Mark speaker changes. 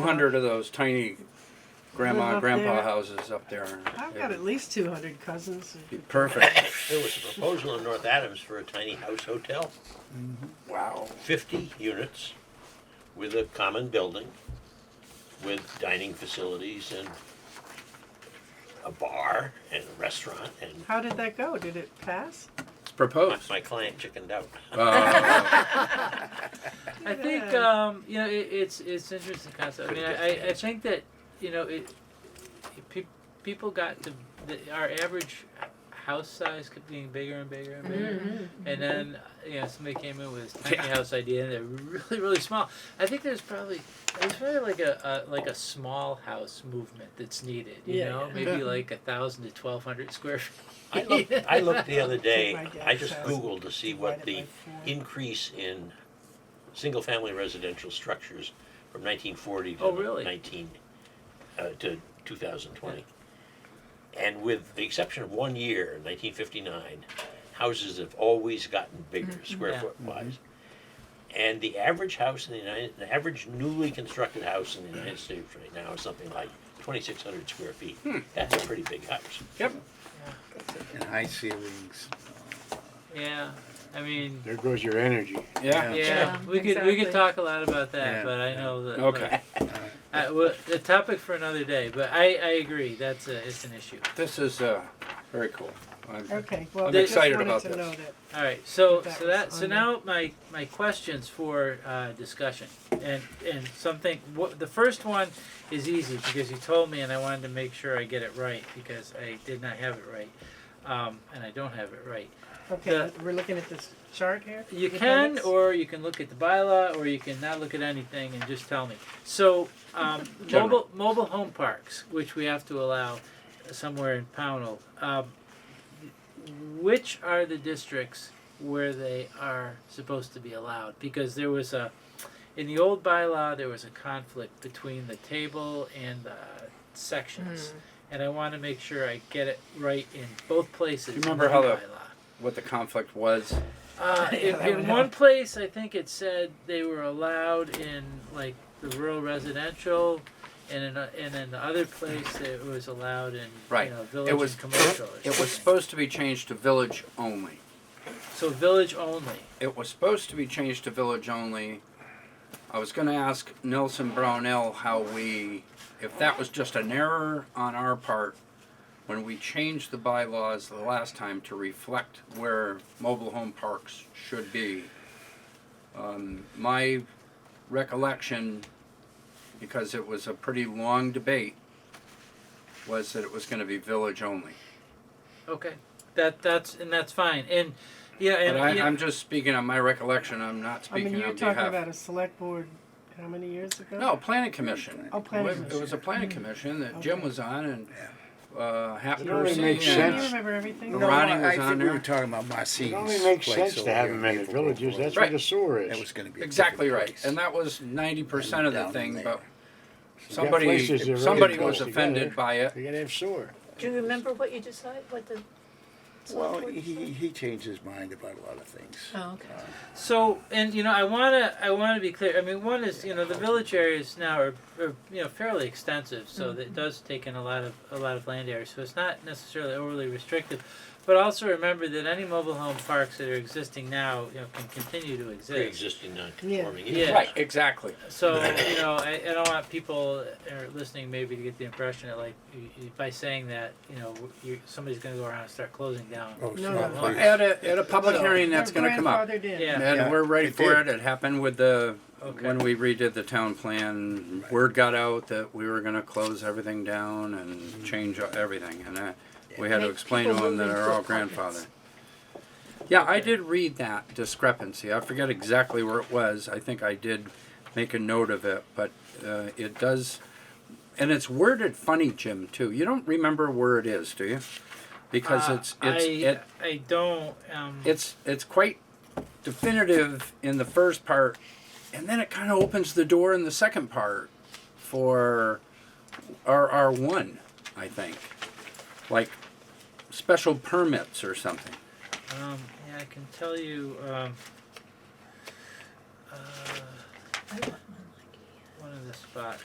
Speaker 1: hundred of those tiny grandma
Speaker 2: Live
Speaker 1: and
Speaker 2: up
Speaker 1: grandpa
Speaker 2: there.
Speaker 1: houses up there.
Speaker 2: I've got at least two hundred cousins.
Speaker 1: Be perfect.
Speaker 3: There was a proposal in North Adams for a tiny house hotel,
Speaker 1: wow.
Speaker 3: fifty units with a common building, with dining facilities and a bar and a restaurant and
Speaker 2: How did that go? Did it pass?
Speaker 1: It's
Speaker 3: my,
Speaker 1: proposed.
Speaker 3: my client chickened out.
Speaker 1: Uh,
Speaker 4: I think
Speaker 2: Yeah.
Speaker 4: um, you know it, it's it's an interesting concept. I mean, I, I, I think that you know it, it pe- people got to the, our average house size kept getting bigger and bigger and
Speaker 2: Mm-hmm.
Speaker 4: bigger, and then you know somebody came in with this tiny
Speaker 1: Yeah.
Speaker 4: house idea and they're really really small. I think there's probably there's probably like a, a like a small house movement that's needed. You
Speaker 2: Yeah,
Speaker 4: know,
Speaker 2: yeah.
Speaker 4: maybe
Speaker 1: Yeah.
Speaker 4: like a thousand to twelve hundred square feet.
Speaker 3: I looked, I looked the other day,
Speaker 2: Take my
Speaker 3: I just
Speaker 2: guess.
Speaker 3: Googled to see what the
Speaker 2: Divided by four.
Speaker 3: increase in single-family residential structures from nineteen forty
Speaker 4: Oh,
Speaker 3: to
Speaker 4: really?
Speaker 3: nineteen, uh, to two thousand twenty. And with the exception of one year, nineteen fifty-nine, houses have always gotten bigger, square
Speaker 4: Mm-hmm. Yeah.
Speaker 3: foot wise. And the average house in the United, the average newly constructed house in the United States right now is something like twenty-six hundred square feet.
Speaker 4: Hmm.
Speaker 3: That's a pretty big house.
Speaker 1: yep.
Speaker 5: and high ceilings.
Speaker 4: Yeah, I mean.
Speaker 5: There goes your energy.
Speaker 1: Yeah.
Speaker 4: Yeah,
Speaker 6: Yeah,
Speaker 4: we could we could
Speaker 6: exactly.
Speaker 4: talk a lot about that,
Speaker 5: Yeah.
Speaker 4: but I know that.
Speaker 1: Okay.
Speaker 4: Uh, well, the topic for another day, but I, I agree. That's a, it's an issue.
Speaker 1: This is uh, very cool. Uh, I'm,
Speaker 2: Okay, well,
Speaker 1: I'm
Speaker 2: I just
Speaker 1: excited
Speaker 2: wanted
Speaker 1: about
Speaker 2: to
Speaker 1: this.
Speaker 2: know that.
Speaker 4: All right. So
Speaker 2: That
Speaker 4: so
Speaker 2: was
Speaker 4: that so
Speaker 2: on
Speaker 4: now my my questions for uh, discussion and and something. What, the first one is easy because you told me, and I wanted to make sure I get it right because I did not have it right, um, and I don't have it right.
Speaker 2: Okay, we're looking at this chart here.
Speaker 4: You
Speaker 2: the
Speaker 4: can,
Speaker 2: appendix?
Speaker 4: or you can look at the bylaw, or you can not look at anything and just tell me. So, um,
Speaker 1: General.
Speaker 4: mobile, mobile home parks, which we have to allow somewhere in Pownell, um, which are the districts where they are supposed to be allowed? Because there was a, in the old bylaw, there was a conflict between the table and the sections.
Speaker 2: Hmm.
Speaker 4: And I wanna make sure I get it right in both places. in
Speaker 1: remember how the-
Speaker 4: bylaw.
Speaker 1: What the conflict was.
Speaker 4: Uh,
Speaker 2: Yeah,
Speaker 4: in,
Speaker 2: that would
Speaker 4: in one place, I think it said they were allowed in like the rural residential, and in a, and in the other place it was allowed in
Speaker 1: Right.
Speaker 4: you know, village
Speaker 1: was-
Speaker 4: and commercial. or
Speaker 1: It was
Speaker 4: something.
Speaker 1: supposed to be changed to village only.
Speaker 4: so village only.
Speaker 1: It was supposed to be changed to village only. I was going to ask Nelson Brownell how we, if that was just an error on our part when we changed the bylaws the last time to reflect where mobile home parks should be. Um, my recollection, because it was a pretty long debate, was that it was going to be village only.
Speaker 4: Okay, that that's and that's fine. And yeah, and
Speaker 1: But I,
Speaker 4: yeah,
Speaker 1: I'm just speaking on my recollection. I'm not
Speaker 2: I
Speaker 1: speaking
Speaker 2: mean, you're
Speaker 1: on
Speaker 2: talking
Speaker 1: behalf.
Speaker 2: about a select board, how many years ago?
Speaker 1: No, planning commission. Mm-hmm.
Speaker 2: Oh, planning
Speaker 1: It was- It was a
Speaker 2: commission.
Speaker 1: planning commission that Jim
Speaker 2: Okay.
Speaker 1: was on and, uh, half
Speaker 5: It only
Speaker 1: person.
Speaker 5: makes
Speaker 2: Do you
Speaker 5: sense.
Speaker 2: remember everything?
Speaker 1: No. Ronnie
Speaker 5: I- I
Speaker 1: was
Speaker 5: think
Speaker 1: on
Speaker 5: We
Speaker 1: there.
Speaker 5: were talking about Marcine's place.
Speaker 7: It only makes sense to
Speaker 5: over
Speaker 7: have
Speaker 5: here
Speaker 7: them in the
Speaker 5: Naperville
Speaker 7: villages,
Speaker 5: Road.
Speaker 7: that's where
Speaker 1: Right.
Speaker 7: the sewer is.
Speaker 5: That was gonna be. a
Speaker 1: Exactly
Speaker 5: different
Speaker 1: right,
Speaker 5: place.
Speaker 1: and that was ninety percent of the
Speaker 5: Down
Speaker 1: thing,
Speaker 5: there.
Speaker 1: but
Speaker 7: You got places that
Speaker 1: somebody,
Speaker 7: really
Speaker 1: somebody
Speaker 7: close
Speaker 1: was
Speaker 7: together.
Speaker 1: offended by it.
Speaker 7: You're gonna have sewer.
Speaker 6: Do you remember what you decided, what the?
Speaker 5: Well,
Speaker 6: select board
Speaker 5: he,
Speaker 6: decided?
Speaker 5: he changed his mind about a lot of things.
Speaker 6: Oh, okay.
Speaker 1: Uh,
Speaker 4: So, and you know, I wanna, I wanna be clear. I mean, one is, you know, the village areas now are, are you know, fairly extensive, so
Speaker 1: Mm-hmm.
Speaker 4: that it does take in a lot of, a lot of land area. So it's not necessarily overly restrictive, but also remember that any mobile home parks that are existing now, you know, can continue to exist.
Speaker 3: pre-existing non-conforming
Speaker 4: Yeah.
Speaker 3: use.
Speaker 1: Right, exactly.
Speaker 4: So you know, I, I don't want people that are listening maybe to get the impression that like you, you, by saying that, you know, you, somebody's gonna go around and start closing down.
Speaker 5: Oh, it's
Speaker 2: No,
Speaker 5: not
Speaker 2: no.
Speaker 5: like-
Speaker 1: At a, at a public
Speaker 4: So-
Speaker 1: hearing, that's
Speaker 2: They're
Speaker 1: gonna come up.
Speaker 2: grandfathered in.
Speaker 4: Yeah.
Speaker 1: And
Speaker 5: Yeah,
Speaker 1: we're ready
Speaker 5: it
Speaker 1: for it.
Speaker 5: did.
Speaker 1: It happened with the,
Speaker 4: Okay.
Speaker 1: when we redid the town plan, word got out that we were gonna close everything down
Speaker 4: Mm-hmm.
Speaker 1: and change everything, and I, we had to
Speaker 6: Make
Speaker 1: explain to
Speaker 6: people
Speaker 1: them that
Speaker 6: move
Speaker 1: are
Speaker 6: into
Speaker 1: all
Speaker 6: apartments.
Speaker 1: grandfathered. Yeah, I did read that discrepancy. I forget exactly where it was. I think I did make a note of it, but, uh, it does, and it's worded funny, Jim, too. You don't remember where it is, do you? Because
Speaker 4: Uh,
Speaker 1: it's, it's,
Speaker 4: I,
Speaker 1: it,
Speaker 4: I don't. Um,
Speaker 1: it's it's quite definitive in the first part and then it kind of opens the door in the second part for rr1 i think like special permits or something
Speaker 4: Um, yeah, I can tell you, um, uh,
Speaker 6: I want mine like
Speaker 4: one of the spots